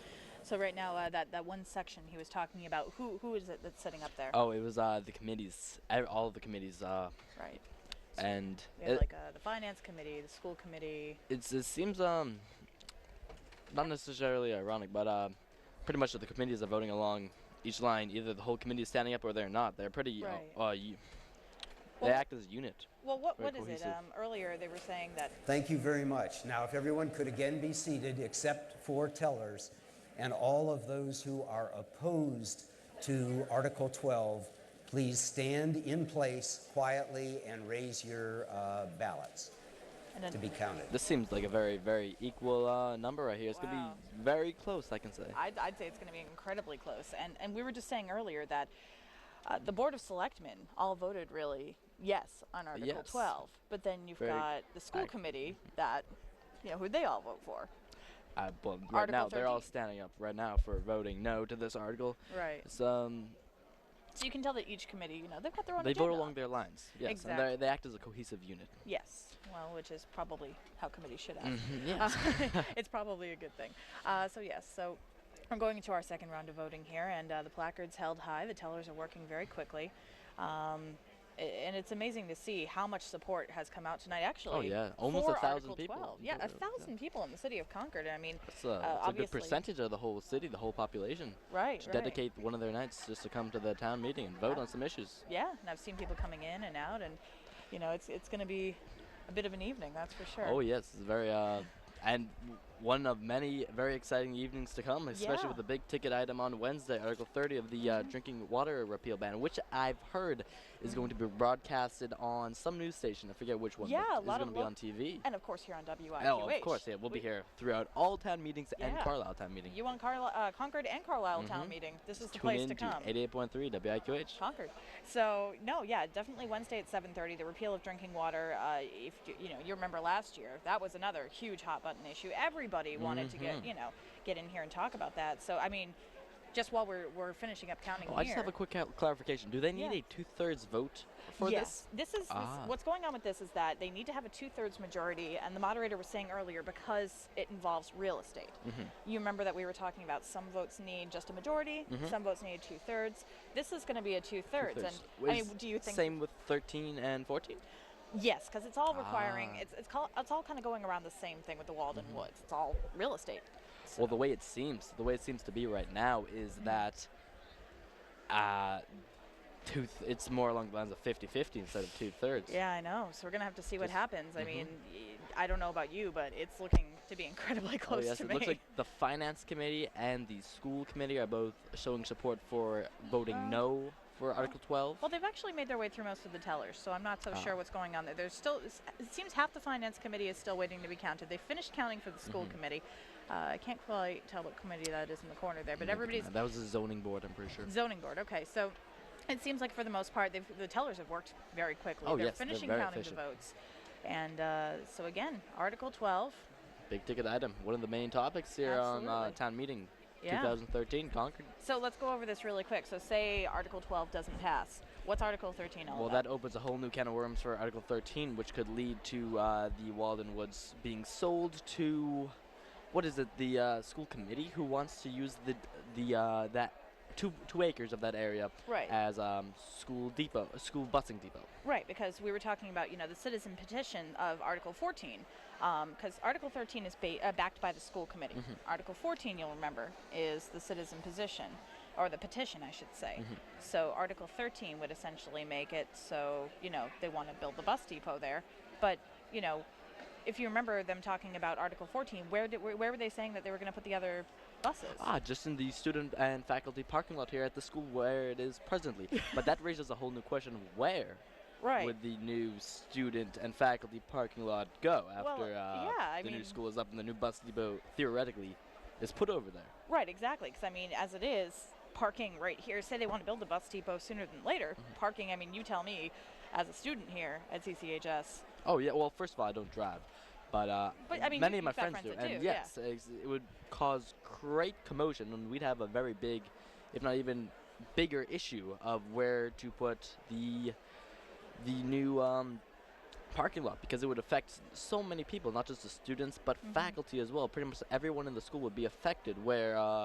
So right now, uh, that that one section he was talking about, who who is it that's sitting up there? Oh, it was uh, the committees, ev- all of the committees, uh, Right. and We have it, like uh, the finance committee, the school committee. it's, it seems um, not necessarily ironic, but uh, pretty much the committees are voting along each line. Either the whole committee is standing up or they're not. They're pretty. uh, Right. Uh, u- they Well- act as a unit. Well, what Very what is it? cohesive. Um, earlier they were saying that Thank you very much. Now, if everyone could again be seated except for tellers and all of those who are opposed to Article 12, please stand in place quietly and raise your uh, ballots and then to be counted. This seems like a very, very equal uh, number right here. It's gonna Wow. be very close, I can say. I'd, I'd say it's going to be incredibly close. And and we were just saying earlier that uh, the board of selectmen all voted really yes on Article Yes. 12, but then you've Very got the school ac- committee that you know who they all vote for. Uh, but right Article now, they're all 13. standing up right now for voting no to this article. Right. It's, um, So you can tell that each committee, you know, they've got their own. they vote agenda. along their lines. Yes, and they they act as a cohesive unit. Yes. Well, which is probably how committees should act. Mm-hmm, yes. Uh, it's probably a good thing. Uh, so yes, so we're going into our second round of voting here, and uh, the placards held high. The tellers are working very quickly. Um, a- and it's amazing to see how much support has come out tonight. Actually, Oh, yeah. Almost for a thousand Article people. 12. You Yeah, don't a know, yeah. thousand people in the city of Concord. I mean, It's a, uh, it's a good obviously- percentage of the whole city, the whole population. Right, To right. dedicate one of their nights just to come to the town meeting and vote on some issues. Yeah, and I've seen people coming in and out, and you know, it's it's going to be a bit of an evening, that's for sure. Oh yes, it's very uh, and w- one of many very exciting evenings to come, especially Yeah. Mm-hmm. with the big ticket item on Wednesday, Article 30 of the uh, drinking water repeal ban, which I've heard is going to be broadcasted on some news station. I forget which one. but Yeah, a it's lot of going to be lo- on TV. And of course, here on WIQH. Oh, of course, yeah, we'll be we- here throughout all town meetings and Yeah. Carlisle town meeting. You on Carli- uh, Concord and Carlisle town meeting. This is the Mm-hmm. Tune place in to come. 88.3 WIQH. Concord. So no, yeah, definitely Wednesday at 7:30. The repeal of drinking water. Uh, if you, you know, you remember last year, that was another huge hot button issue. Everybody wanted to Mm-hmm. get you know get in here and talk about that. So I mean, just while we're, we're finishing up counting Oh, here. I just have a quick cal- clarification. Do they need Yeah. a two-thirds vote for yes, this, is this- Ah. what's going on with this is that they need to have a two-thirds majority, and the moderator was saying earlier because it involves real estate. Mm-hmm. You remember that we were talking about some votes need just a majority, some votes need two-thirds. This is going to be a two-thirds, this? and Mm-hmm. Two-thirds. I mean, Is do you think? same with 13 and 14? Yes, because it's all requiring. Ah. It's it's, call, it's all kind of going around the same thing with the Walden Mm-hmm. Woods. It's all real estate. Well, the way it seems, the way it seems to be right now is Mm-hmm. that uh, two th- it's more along the lines of 50-50 instead of two-thirds. Yeah, I know. So we're gonna have to see what Just- Mm-hmm. happens. I mean, y- I don't know about you, but it's looking to be incredibly Oh, close yes, to it me. looks like the finance committee and the school committee are both showing support for voting Uh, no for Article 12. Well, they've actually made their way through most of the tellers, so I'm not so Oh. sure what's going on there. There's still, s- it seems half the finance committee is still waiting to be counted. They finished counting for the school Mm-hmm. committee. Uh, I can't quite tell what committee that is in the corner there, but everybody's Uh, that was the zoning board, I'm pretty sure. zoning board. Okay, so it seems like for the most part, they've, the tellers have worked very quickly. Oh, they're yes, they're finishing very counting efficient. the votes, and uh, so again, Article 12. Big ticket item, one of the main topics here on uh, Absolutely. town meeting Yeah. 2013 Concord. So let's go over this really quick. So say Article 12 doesn't pass. What's Article 13 all Well, about? that opens a whole new can of worms for Article 13, which could lead to uh, the Walden Woods being sold to, what is it, the uh, school committee who wants to use the the uh, that two two acres of that area Right. as um, school depot, a school busing depot. Right, because we were talking about you know the citizen petition of Article 14, because Article 13 is ba- uh, backed by the school committee. Article 14, you'll remember, is the citizen position, or the petition, I should say. So Article 13 would essentially make it so you know they want to build the bus depot there, but you know if you remember them talking about Article 14, where did where, where were they saying that they were going to put the other buses? Ah, just in the student and faculty parking lot here at the school where it is presently. but that raises a whole new question: Where right. would the new student and faculty parking lot go Well, after uh, yeah, I the new mean- school is up and the new bus depot theoretically is put over there? Right, exactly. Because I mean, as it is, parking right here. Say they want to build a bus depot sooner than later. Parking. I mean, you tell me, as a student here at CCHS. Oh yeah. Well, first of all, I don't drive, but uh, But, I mean, many you- of my you've got friends, friends do, that and do, yeah. yes, ex- it would cause great commotion, and we'd have a very big, if not even bigger, issue of where to put the the new um, parking lot because it would affect Mm-hmm. so many people, not just the students, but faculty as well. Pretty much everyone in the school would be affected. Where uh,